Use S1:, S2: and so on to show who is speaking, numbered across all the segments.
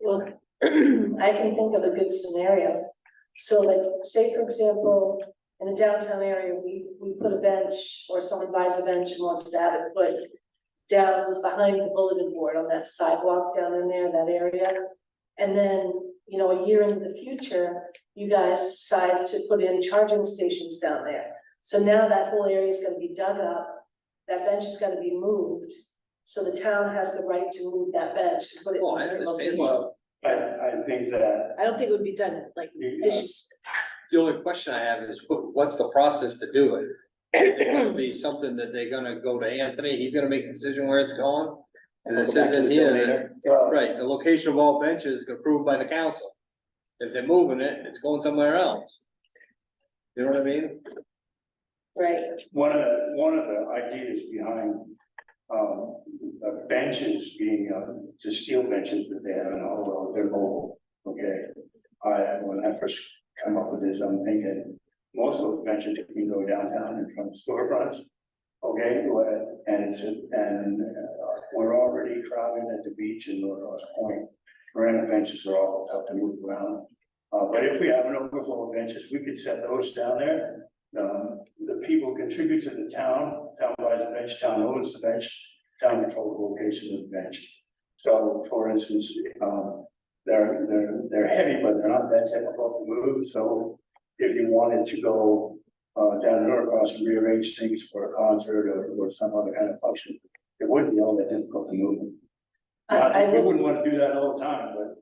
S1: Well, I can think of a good scenario. So like, say for example, in the downtown area, we, we put a bench or someone buys a bench and wants to have it put down behind the bulletin board on that sidewalk down in there, that area. And then, you know, a year into the future, you guys decide to put in charging stations down there. So now that whole area is gonna be dug up, that bench is gonna be moved. So the town has the right to move that bench and put it. in
S2: Oh, I
S1: another
S2: understand.
S1: location.
S2: Well,
S3: I, I think that,
S1: I don't think it would be done like
S3: you know,
S1: vicious.
S2: the only question I have is, wh- what's the process to do it? Is it gonna be something that they're gonna go to Anthony, he's gonna make a decision where it's going? As it says in here,
S3: well,
S2: right, the location of all benches is approved by the council. If they're moving it, it's going somewhere else. You know what I mean?
S1: Right.
S3: one of, the- one of the ideas behind, um, the benches being, uh, the steel benches that they have in all of their mobile, okay? I, when I first come up with this, I'm thinking, most of the benches can go downtown and from storefronts, okay, where- and it's, and uh, we're already crowded at the beach in North Point. Granite benches are all tough to move around, uh, but if we have an overflow of benches, we could set those down there um, the people contribute to the town, town buys the bench, town owns the bench, town control the location of the bench. So for instance, um, they're, they're, they're heavy, but they're not that difficult to move, so if you wanted to go uh, down to Norcross and rearrange things for a concert or, or some other kind of function, it wouldn't be all that difficult to move.
S1: I,
S3: Not-
S1: I
S3: We
S1: would,
S3: wouldn't want to do that all the time, but.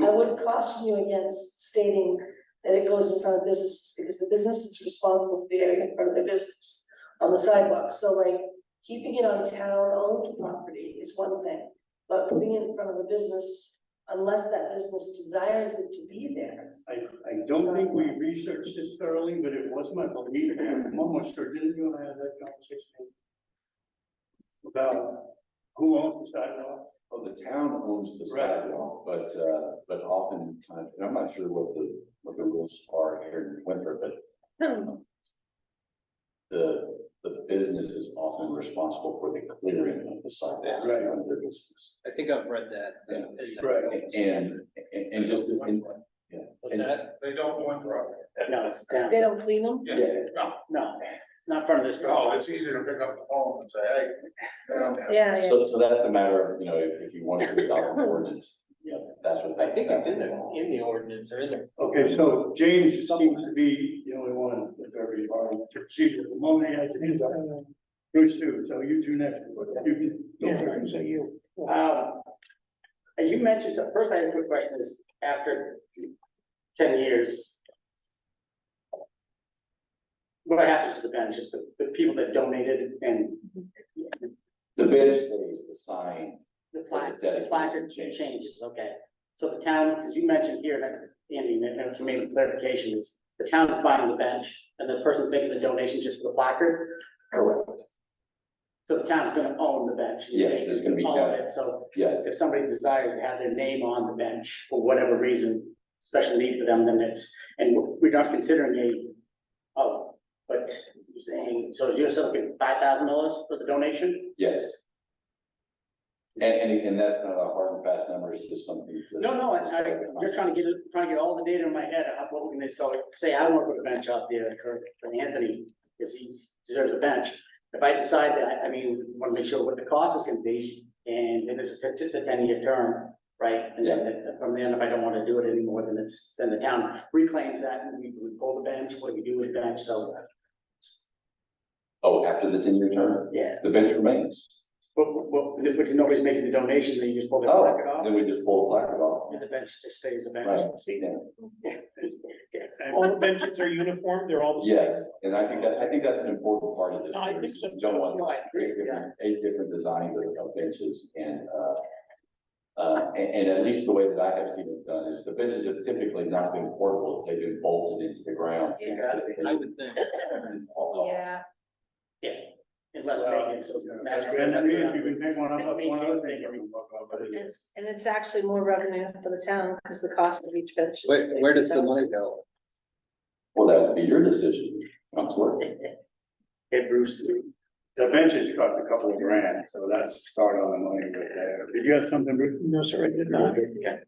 S1: I would caution you against stating that it goes in front of businesses, because the business is responsible for the area in front of the business on the sidewalk, so like, keeping it on town-owned property is one thing, but putting it in front of a business, unless that business desires it to be there.
S3: I, I don't think we researched this thoroughly, but it was my belief, I'm almost sure, didn't you and I have that conversation? About who owns the sidewalk?
S4: Well, the town owns the
S3: Right.
S4: sidewalk, but, uh, but oftentimes, and I'm not sure what the, what the rules are here in Winthrop, but the, the business is often responsible for the clearing of the sidewalk.
S3: Right.
S4: from their business.
S2: I think I've read that.
S3: Right.
S4: And, and, and just, and,
S2: What's that?
S5: They don't go in the road.
S6: No, it's down,
S1: They don't clean them?
S4: yeah,
S6: no, not in front of this.
S5: No, it's easier to pick up the phone and say, hey. you know,
S1: Yeah,
S4: so, so that's a matter of, you know, if, if you want to adopt an ordinance, you know, that's what.
S2: I think it's in there, in the ordinance or in there.
S3: Okay, so James seems to be the only one with every department, chief of the moment, has his, Bruce too, so you two next. You can-
S6: So you. Um, and you mentioned, so first I have a quick question is, after ten years. What happens to the bench, If the, the people that donated and
S4: The bench stays, the sign,
S6: the plaque, the
S4: Dedication
S6: placard
S4: changes.
S6: changes, okay? So the town, as you mentioned here, and Andy, and and for maybe clarification is, the town's buying the bench and the person's making the donation just for the placard?
S4: correct,
S6: So the town's gonna own the bench.
S4: Yes, it's gonna be
S6: All of
S4: done.
S6: it, so
S4: yes,
S6: if somebody desired to have their name on the bench for whatever reason, special need for them, then it's, and we're not considering a, oh, but you're saying, so you're still giving five thousand dollars for the donation?
S4: yes. And, and, and that's not a hard and fast number, it's just something. to-
S6: No, no, I, I, just trying to get, it- trying to get all the data in my head, of what we're gonna, so, say I wanna put a bench out there for, for Anthony, because he deserves a bench. If I decide that, I mean, wanna make sure what the cost is gonna be, and if it's, if it's a ten-year term, right? And then, it- from then, if I don't wanna do it anymore, then it's, then the town reclaims that, and we, we pull the bench, what do we do with the bench, so,
S4: Oh, after the ten-year term,
S6: yeah.
S4: the bench remains.
S6: But, but, but if nobody's making the donation, then you just pull the
S4: Oh,
S6: bracket off,
S4: then we just pull the placard off.
S6: and the bench just stays a
S4: Right,
S6: bench.
S4: yeah.
S7: All the benches are uniform, they're all the same.
S4: yes, and I think that, I think that's an important part of this.
S7: No, I think so.
S4: You Don't
S6: No,
S4: want
S6: I agree,
S4: eight
S6: yeah.
S4: different, eight different designs of of benches and, uh, uh, and, and at least the way that I have seen it done is the benches have typically not been portable, they've been bolted into the ground.
S2: I would think.
S1: Yeah.
S6: Yeah, in Las
S3: Well,
S6: Vegas, so.
S3: That's great, I mean, if you can pick one up, one other thing you can talk about, but it is.
S1: And it's actually more revenue for the town, because the cost of each bench is.
S2: Where, where does the money go?
S4: Well, that would be your decision, Counselor.
S6: Hey, Bruce.
S3: The benches cost a couple of grand, so that's start on the money right there. Did you have something, Bruce?
S7: No, sir, I did not.